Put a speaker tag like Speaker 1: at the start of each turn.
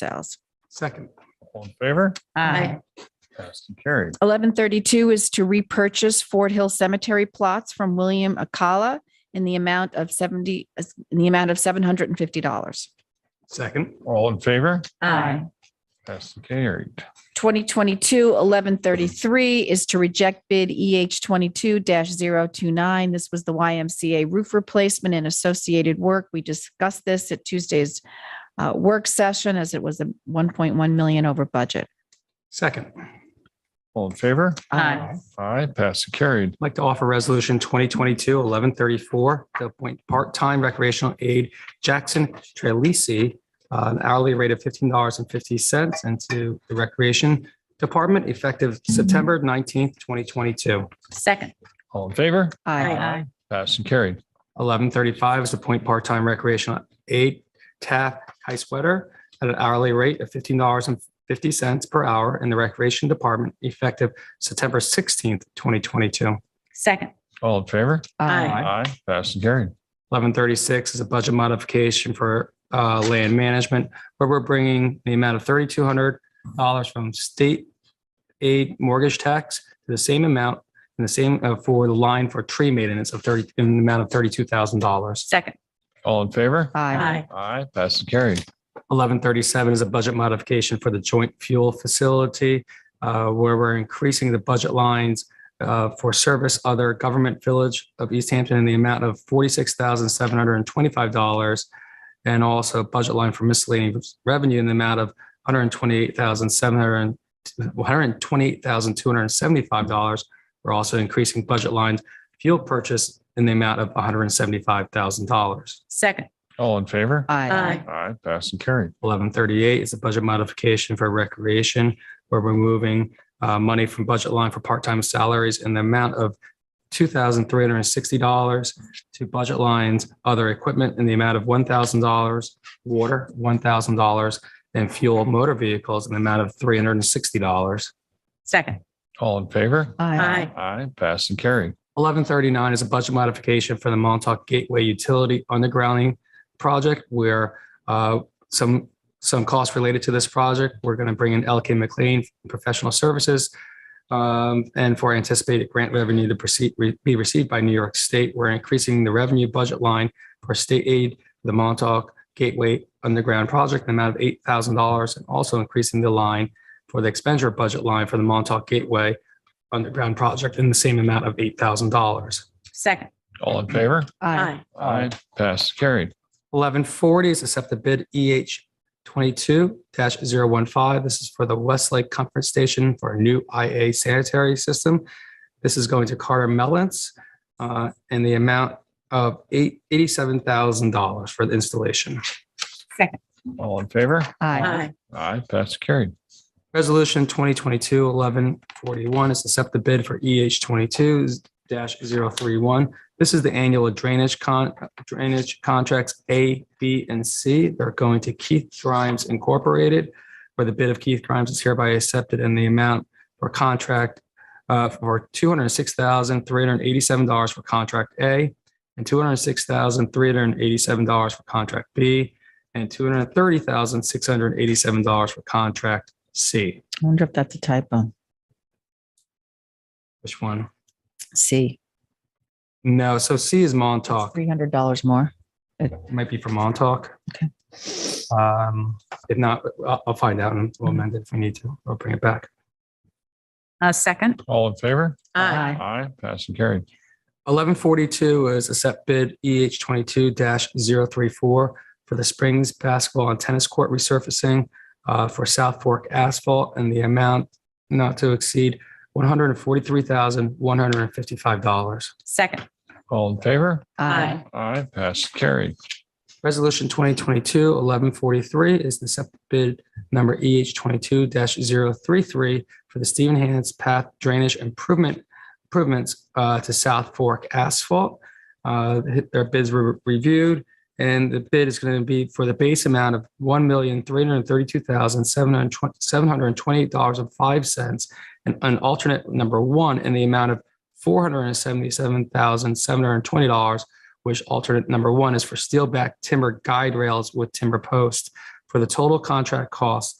Speaker 1: sales.
Speaker 2: Second.
Speaker 3: All in favor?
Speaker 1: Aye.
Speaker 3: Passed and carried.
Speaker 1: Eleven thirty-two is to repurchase Fort Hill Cemetery plots from William Akala in the amount of seventy, in the amount of seven hundred and fifty dollars.
Speaker 2: Second.
Speaker 3: All in favor? Passed and carried.
Speaker 1: 2022-1133 is to reject bid EH 22-029. This was the YMCA roof replacement and associated work. We discussed this at Tuesday's uh, work session as it was a 1.1 million over budget.
Speaker 2: Second. I'd
Speaker 3: All in favor?
Speaker 1: Aye.
Speaker 3: Aye, passed and carried.
Speaker 2: like to offer Resolution 2022-1134 to appoint part-time recreational aide Jackson Trelisi, uh, an hourly rate of $15.50 into the Recreation Department effective September 19th, 2022.
Speaker 4: Second.
Speaker 3: All in favor?
Speaker 1: Aye.
Speaker 3: Passed and carried.
Speaker 2: 1135 is appoint part-time recreational aide Taff Heiswetter at an hourly rate of $15.50 per hour in the Recreation Department effective September 16th, 2022.
Speaker 4: Second.
Speaker 3: All in favor?
Speaker 4: Aye.
Speaker 3: Aye, passed and carried.
Speaker 2: Eleven thirty-six is a budget modification for uh, land management, where we're bringing the amount of thirty-two hundred dollars from state aid mortgage tax to the same amount and the same uh, for the line for tree maintenance of thirty, in the amount of thirty-two thousand dollars.
Speaker 4: Second.
Speaker 3: All in favor?
Speaker 1: Aye.
Speaker 3: Aye, passed and carried.
Speaker 2: Eleven thirty-seven is a budget modification for the joint fuel facility, uh, where we're increasing the budget lines uh, for service other government village of East Hampton in the amount of forty-six thousand seven hundred and twenty-five dollars, and also budget line for miscellaneous revenue in the amount of one hundred and twenty-eight thousand seven hundred and one hundred and twenty-eight thousand two hundred and seventy-five dollars. We're also increasing budget lines fuel purchase in the amount of one hundred and seventy-five thousand dollars.
Speaker 4: Second.
Speaker 3: All in favor?
Speaker 1: Aye.
Speaker 3: Aye, passed and carried.
Speaker 2: eleven thirty-eight is a budget modification for recreation, where we're moving uh, money from budget line for part-time salaries in the amount of two thousand three hundred and sixty dollars to budget lines, other equipment in the amount of one thousand dollars, water, one thousand dollars, and fuel motor vehicles in the amount of three hundred and sixty dollars.
Speaker 4: Second.
Speaker 3: All in favor?
Speaker 1: Aye.
Speaker 3: Aye, passed and carried.
Speaker 2: Eleven thirty-nine is a budget modification for the Montauk Gateway Utility Undergrounding Project where uh, some, some costs related to this project, we're going to bring in LK McLean Professional Services um, and for anticipated grant revenue to proceed, re- be received by New York State, we're increasing the revenue budget line for state aid, for the Montauk Gateway Underground Project, in the amount of eight thousand dollars, and also increasing the line for the expenditure budget line for the Montauk Gateway underground project in the same amount of eight thousand dollars.
Speaker 4: Second.
Speaker 3: All in favor? Aye, passed and carried.
Speaker 2: Eleven forty is accept the bid EH twenty-two 15 This is for the Westlake Comfort Station for a new IA sanitary system. This is going to Carter Mellons uh, in the amount of eight, eighty-seven thousand dollars for the installation.
Speaker 3: All in favor?
Speaker 1: Aye.
Speaker 3: Aye, passed and carried.
Speaker 2: Resolution 2022-1141 is to accept the bid for EH 22-031. This is the annual drainage con, drainage contracts A, B, and C. They're going to Keith Grimes Incorporated, where the bid of Keith Grimes is hereby accepted and the amount for contract uh, for $206,387 for contract A and $206,387 for contract B and $230,687 for contract C.
Speaker 1: I wonder if that's a typo.
Speaker 2: Which one?
Speaker 1: C,
Speaker 2: No, so C is Montauk.
Speaker 1: three hundred dollars more.
Speaker 2: It might be for Montauk.
Speaker 1: Okay.
Speaker 2: Um, if not, I'll, I'll find out and we'll amend it if we need to. I'll bring it back.
Speaker 4: Uh, second.
Speaker 3: All in favor? Aye, passed and carried.
Speaker 2: Eleven forty-two is accept bid EH twenty-two 34 for the Springs Basketball and Tennis Court resurfacing uh, for South Fork Asphalt and the amount not to exceed one hundred and forty-three thousand, one hundred and fifty-five dollars.
Speaker 4: Second.
Speaker 3: All in favor?
Speaker 4: Aye.
Speaker 3: Aye, passed and carried.
Speaker 2: Resolution 2022-1143 is the accept bid number EH 22-033 for the Stephen Hannah's Path Drainage Improvement improvements uh, to South Fork Asphalt. Uh, Their bids were reviewed, and the bid is going to be for the base amount of $1,332,728.05 and an alternate number one in the amount of $477,720 which alternate number one is for steel back timber guide rails with timber post for for the total contract cost